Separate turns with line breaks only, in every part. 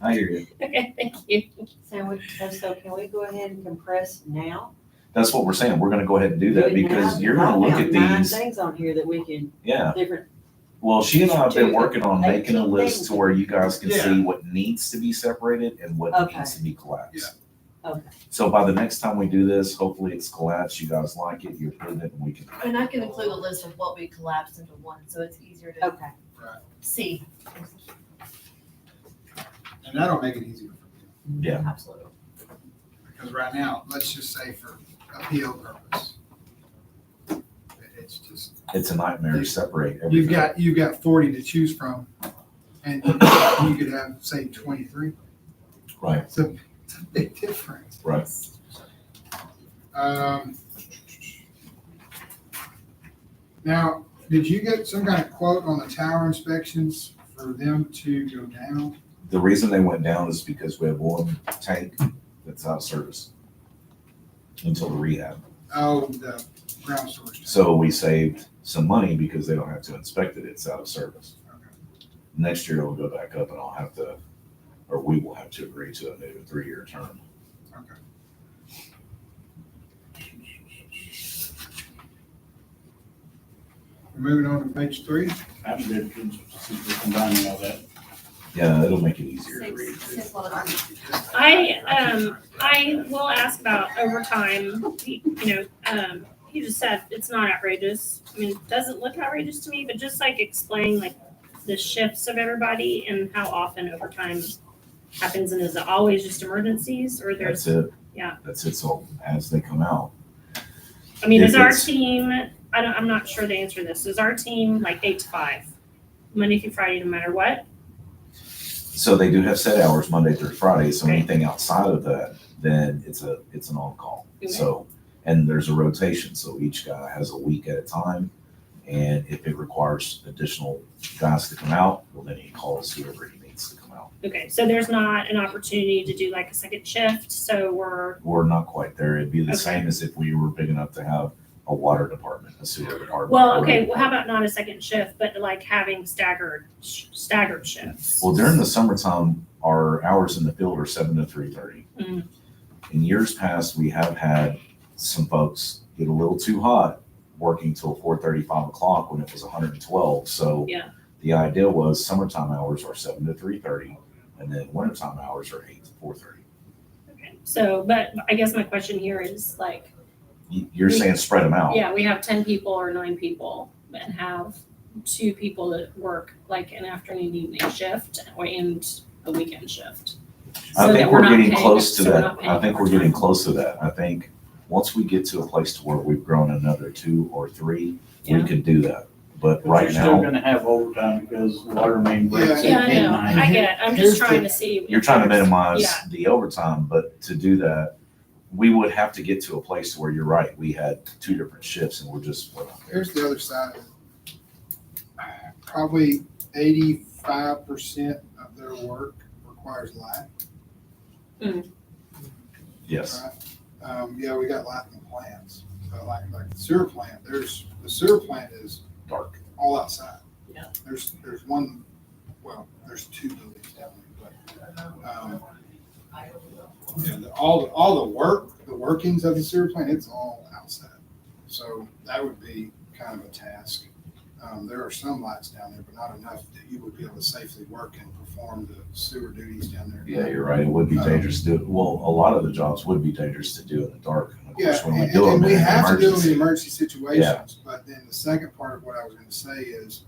I hear you.
Okay, thank you.
So we, so- so can we go ahead and compress now?
That's what we're saying. We're gonna go ahead and do that because you're gonna look at
I've got Nine
these.
things on here that we can,
Yeah.
different,
Well, she and I have been
Two,
working on making a
eighteen
list to
things.
where you guys can
Yeah.
see what needs to be separated and what
Okay.
needs to be collapsed.
okay,
So by the next time we do this, hopefully it's collapsed. You guys like it, you approve it, and we can.
And I can include a list of what we collapsed into one, so it's easier to
okay.
see.
And that'll make it easier for you,
Yeah.
Absolutely.
because right now, let's just say for appeal purpose. it- It's just,
It's a nightmare to separate
you've
everything.
got, you've got forty to choose from, and you could have, say, twenty-three.
Right,
It's a, it's a big difference.
right.
Um, Now, did you get some kind of quote on the tower inspections for them to go down?
The reason they went down is because we have one tank that's out of service until the rehab.
Oh, the ground source. tower.
So we saved some money because they don't have to inspect it. It's out of service. Next year it'll go back up and I'll have to, or we will have to agree to a new three-year term.
Moving on to page three.
I'm good, since we're combining all that.
Yeah, it'll make it easier to read.
I, um, I will ask about overtime, you know, um, you just said it's not outrageous. I mean, it doesn't look outrageous to me, but just like explain like the shifts of everybody and how often overtime happens and is it always just emergencies or
That's
there's,
it.
Yeah.
That's it. So as they come out,
I mean, is
If
our
it's-
team, I don't, I'm not sure the answer to this. Is our team like eight to five? Monday through Friday, no matter what?
so they do have set hours Monday through Friday. So
Right.
anything outside of that, then it's a, it's an on-call.
Okay.
So, and there's a rotation. So each guy has a week at a time. And if it requires additional guys to come out, well, then he calls whoever he needs to come out.
Okay, so there's not an opportunity to do like a second shift, so we're,
we're not quite there. It'd be the
Okay.
same as if we were big enough to have a water department, a sewer department.
Well,
or-
okay, well, how about not a second shift, but like having staggered, sh- staggered shifts?
Well, during the summertime, our hours in the field are seven to three thirty.
Mm.
In years past, we have had some folks get a little too hot working till four thirty, five o'clock when it was hundred and twelve, so.
Yeah.
The idea was summertime hours are seven to three thirty, and then wintertime hours are eight to four thirty.
Okay, So, but I guess my question here is like,
You're
We-
saying spread them out.
yeah, we have ten people or nine people and have two people that work like an afternoon, and evening shift or and a weekend shift.
I
so
think
that we're
we're
not
getting
paying-
close to
so we're
that.
not paying
I think we're getting
overtime.
close to that. I think once we get to a place to where we've grown another two or three, we
Yeah.
could do that. But
But
right
you're still
now,
gonna have overtime because water main breaks
Yeah,
at
I know,
midnight.
I get, it. I'm
Here's
just
the-
trying to see.
you're trying to minimize
Yeah.
the overtime, but to do that, we would have to get to a place where you're right. We had two different shifts and we're just, we're not there.
Here's the other side of it. Probably eighty-five percent of their work requires light.
Yes,
right? Um, yeah, we got light in the plants, but like, like the sewer plant, there's, the sewer plant is
dark.
all outside.
Yeah.
There's, there's one, well, there's two buildings down there, but, um, yeah, the- all, the- all the work, the workings of the sewer plant, it's all outside. So that would be kind of a task. Um, there are some lights down there, but not enough that you would be able to safely work and perform the sewer duties down there.
Yeah, you're right. It would
Um,
be dangerous to, well, a lot of the jobs would be dangerous to do in the dark. And of
Yeah,
course, when we
and,
do
and
them
we
in an
have to do them in
emergency,
emergency situations, but then the second part of what I was gonna say is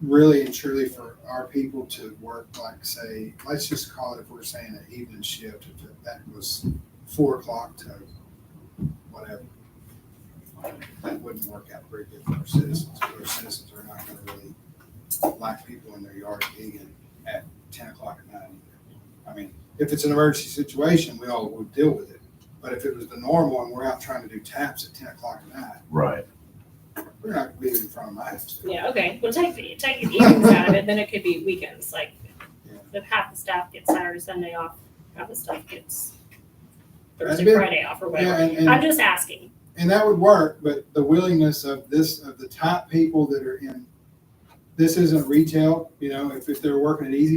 really and truly for our people to work, like, say, let's just call it, if we're saying an evening shift, if it- that was four o'clock to whatever. That wouldn't work out very good for our citizens, our citizens are not gonna really like people in their yard digging at ten o'clock at night either. I mean, if it's an emergency situation, we all would deal with it. But if it was the normal and we're out trying to do taps at ten o'clock at night,
right.
we're not gonna be in front of my house.
Yeah, okay, well, take, the- take the evenings out of it, then it could be weekends, like, the half the staff gets Saturday, Sunday off, half the staff gets
That's
Thursday,
been-
Friday off or
Yeah,
whatever.
and,
I'm
and,
just asking,
and that would work, but the willingness of this, of the top people that are in, this isn't retail, you know, if, if they're working at Easy